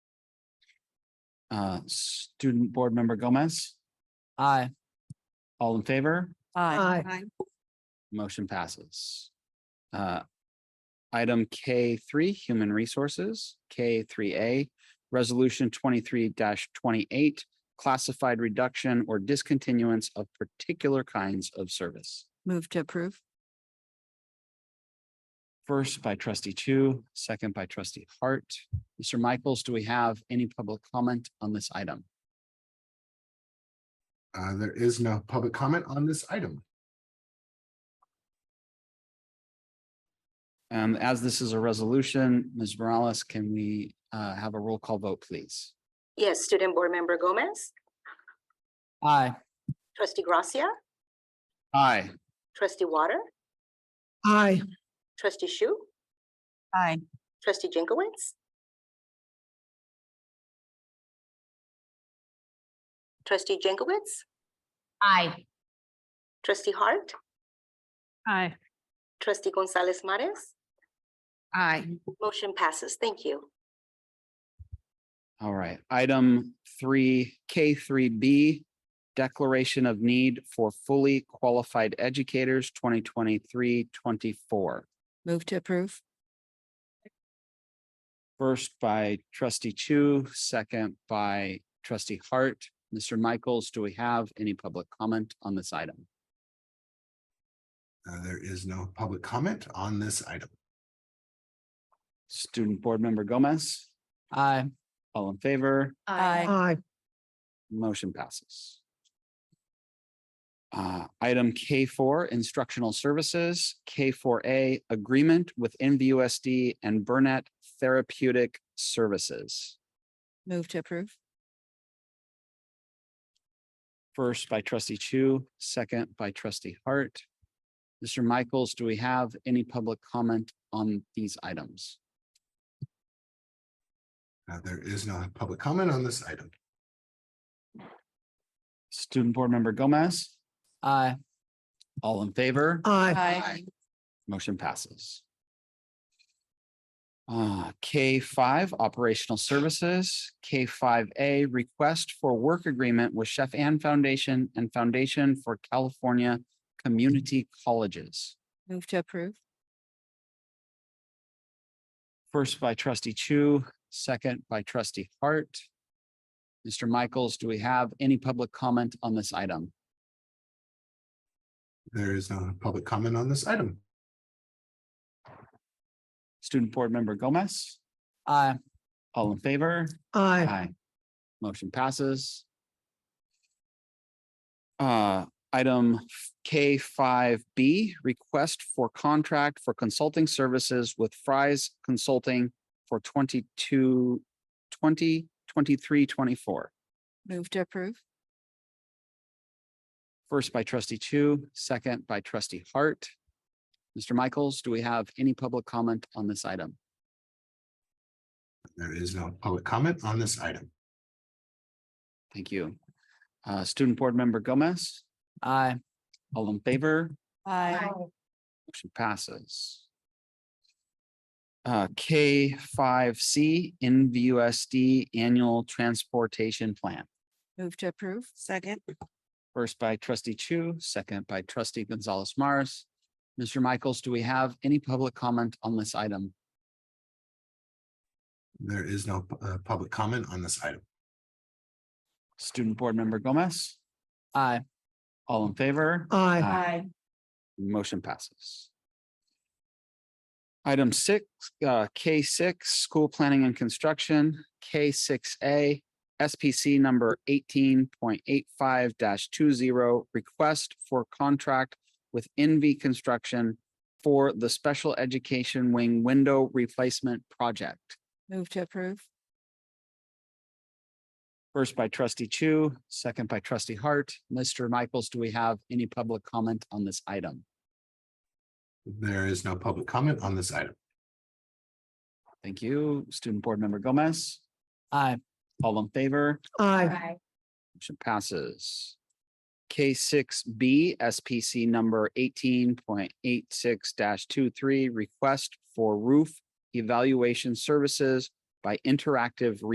Uh, student board member Gomez, Aye. all in favor? Aye. Motion passes. Uh, Item K three, Human Resources, K three A, Resolution twenty-three twenty-eight, Classified Reduction or Discontinuance of Particular Kinds of Service. Move to approve. First by trustee Chu, second by trustee Hart. Mr. Michaels, do we have any public comment on this item? Uh, there is no public comment on this item. Um, As this is a resolution, Ms. Morales, can we uh, have a roll call vote, please? Yes, Student Board Member Gomez, Aye. Trustee Gracia, Aye. Trustee Water, Aye. Trustee Shu, Aye. Trustee Jankowicz. Trustee Jankowicz, Aye. Trustee Hart, Aye. Trustee Gonzalez Mares, Aye. motion passes. Thank you. All right, item three, K three B, Declaration of Need for Fully Qualified Educators 2023-24. Move to approve. First by trustee Chu, second by trustee Hart. Mr. Michaels, do we have any public comment on this item? Uh, there is no public comment on this item. Student Board Member Gomez, Aye. all in favor? Aye. Motion passes. Uh, item K four, instructional services, K four A, agreement with NVUSD and Burnett Therapeutic Services. Move to approve. First by trustee Chu, second by trustee Hart. Mr. Michaels, do we have any public comment on these items? Uh, there is no public comment on this item. Student Board Member Gomez, Aye. all in favor? Aye. Motion passes. Uh, K five, operational services, K five A, request for work agreement with Chef Ann Foundation and Foundation for California Community Colleges. Move to approve. First by trustee Chu, second by trustee Hart. Mr. Michaels, do we have any public comment on this item? There is no public comment on this item. Student Board Member Gomez, Aye. all in favor? Aye. Aye. Motion passes. Uh, item K five B, request for contract for consulting services with Fry's Consulting for 22 20, 23, 24. First Move to approve. by trustee Chu, second by trustee Hart. Mr. Michaels, do we have any public comment on this item? There is no public comment on this item. Thank you. Uh, student board member Gomez, Aye. all in favor? Aye. Motion passes. Uh, K five C, NVUSD Annual Transportation Plan. Move to approve. Second. First by trustee Chu, second by trustee Gonzalez Maris. Mr. Michaels, do we have any public comment on this item? There is no uh, public comment on this item. Student Board Member Gomez, Aye. all in favor? Aye. Aye. Motion passes. Item six, uh, K six, school planning and construction, K six A, SPC number eighteen point eight five two zero, request for contract with NV Construction for the special education wing window replacement project. Move to approve. First by trustee Chu, second by trustee Hart. Mr. Michaels, do we have any public comment on this item? There is no public comment on this item. Thank you. Student Board Member Gomez? Aye. All in favor? Aye. Aye. Motion passes. K six B, SPC number eighteen point eight six 23 request for roof evaluation services by Interactive